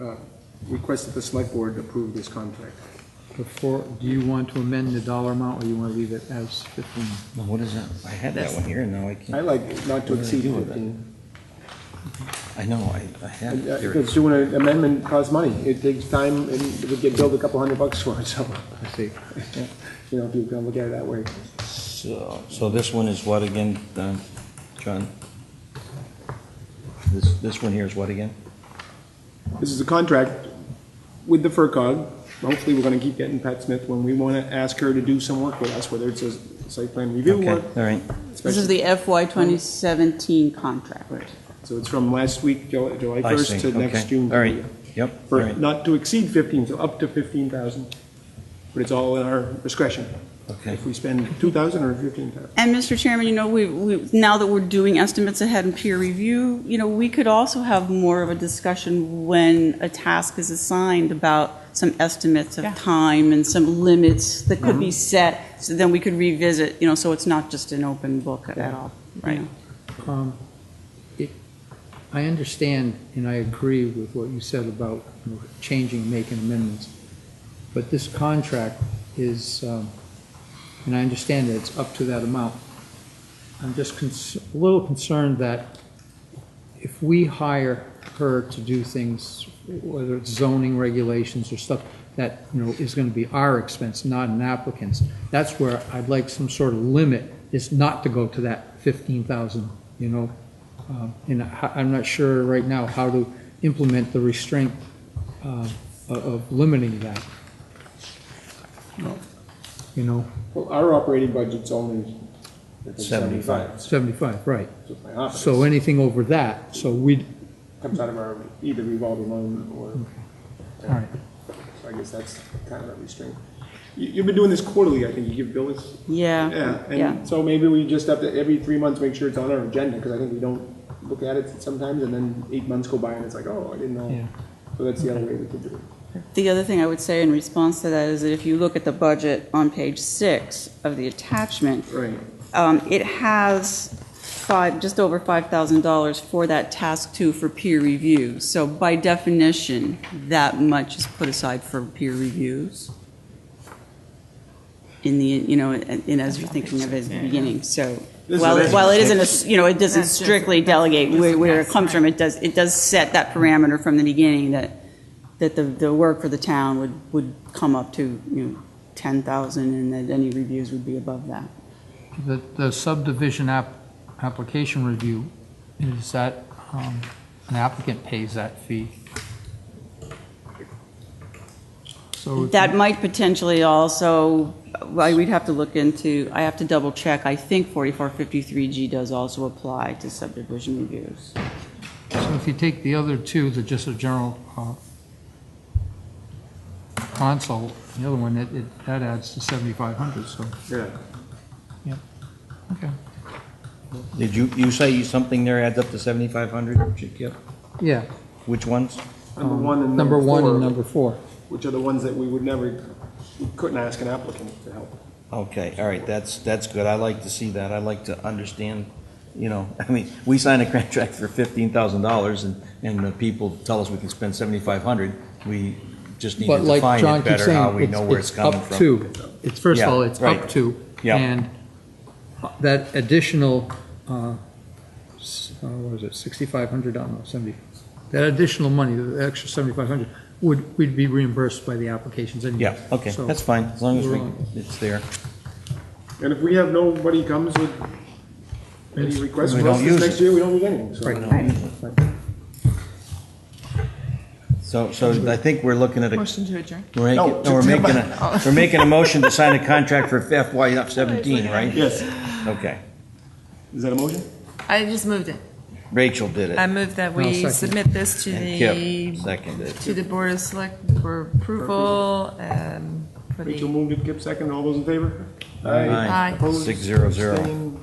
uh, request that the select board approve this contract. Before, do you want to amend the dollar amount, or you want to leave it as fifteen? Well, what is that? I had that That's- one here, and now I can't. I like not to What do they exceed do with it? fifteen. I know, I, I had And, uh, it here. Because doing an amendment costs money. It takes time and it would get billed a couple hundred bucks for it, so, I see. you know, if you're gonna look at it that way. So, so this one is what again, uh, John? This, this one here is what again? This is a contract with the FERCog. Hopefully, we're gonna keep getting Pat Smith when we wanna ask her to do some work with us, whether it's a site plan review Okay, work. All right, This is special- the FY 2017 contract. So it's from last week, Ju- July I first see, to next okay. June. All right, 30th. yep, all For right, not to exceed fifteen, so up to fifteen thousand. But it's all in our discretion, okay. if we spend two thousand or fifteen thousand. And Mr. Chairman, you know, we, we- now that we're doing estimates ahead and peer review, you know, we could also have more of a discussion when a task is assigned about some estimates of time and some limits that could be set, so then we could revisit, you know, so it's not just an open book at all, right? Um, it- I understand and I agree with what you said about you know, changing, making amendments, but this contract is, um, and I understand that it's up to that amount. I'm just cons- a little concerned that if we hire her to do things, whether it's zoning regulations or stuff, that, you know, is going to be our expense, not an applicant's. That's where I'd like some sort of limit, is not to go to that 15,000 you know? Um, And I- I'm not sure right now how to implement the restraint uh, of of limiting that. You know, Well, our operating budget's only. Seventy-five. 75, right. So my office So anything over that, so we, Comes out of our either revolving loan or, all right, so I guess that's kind of a restraint. You, you've been doing this quarterly, I think, you give billings? Yeah, Yeah, yeah. and so maybe we just have to, every three months, make sure it's on our agenda, because I think we don't look at it sometimes, and then eight months go by and it's like, oh, I didn't know. Yeah. So that's the other way we could do it. The other thing I would say in response to that is that if you look at the budget on page six of the attachment, Right. um, it has five, just over $5,000 for that task two for peer review. So by definition, that much is put aside for peer reviews in the, you know, in as you're thinking of it at the beginning. So This while, is- while it isn't, a s- you know, it doesn't strictly delegate where where it comes from, it does, it does set that parameter from the beginning that, that the, the work for the town would, would come up to, you know, 10,000 and that any reviews would be above that. the the subdivision app, application review, is that, um, an applicant pays that fee? So if That might potentially also, well, we'd have to look into, I have to double check, I think 4453G does also apply to subdivision reviews. So if you take the other two, they're just a general uh, console, the other one, it- it, that adds to 7,500, so, Yeah. okay. Did you, you say you- something there adds up to seventy-five hundred? Yeah. Which ones? Number one and Um, Number number one and four, number four. which are the ones that we would never, we couldn't ask an applicant to help. Okay, all right, that's, that's good. I like to see that. I like to understand, you know, I mean, we sign a contract for fifteen thousand dollars and, and the people tell us we can spend seventy-five hundred. We just need to But like define John it keeps better, how we saying, know where it's- it's it's coming up from. to. It's, first of Yeah, all, it's up right. to. Yeah. And that additional, uh, s- uh, what is it, 6,500, I don't know, 70, that additional money, the extra 7,500, would, we'd be reimbursed by the applications anyway. Yeah, okay, So- that's fine, as long as we're we, on. it's there. And if we have, nobody comes with any It's- requests we for us don't this use next year, we don't need anything, so. So, so I think we're looking at a, Motion to adjourn. we're making, No, no, we're to- to- making a, we're making a motion to sign a contract for FY seventeen, right? Yes, Okay, is that a motion? I just moved it. Rachel did I it. moved that I'll we second. submit this to And the, Kip seconded it. to the Board of Select for approval, um, for Rachel the, moved it, Kip second, all those in favor? Aye. Opposed? Six zero zero, Abstained?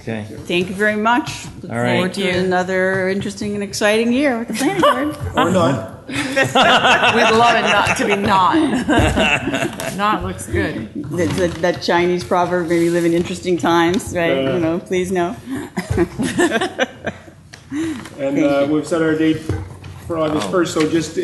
okay. Thank you very much. Look All right. forward to Thank you. another interesting and exciting year with the planning board. Or not, we'd love it not to be not. Not looks good. That- That that Chinese proverb, maybe live in interesting times, right? Yeah. You know, please know. Oh. and uh, we've set our date for August first, so just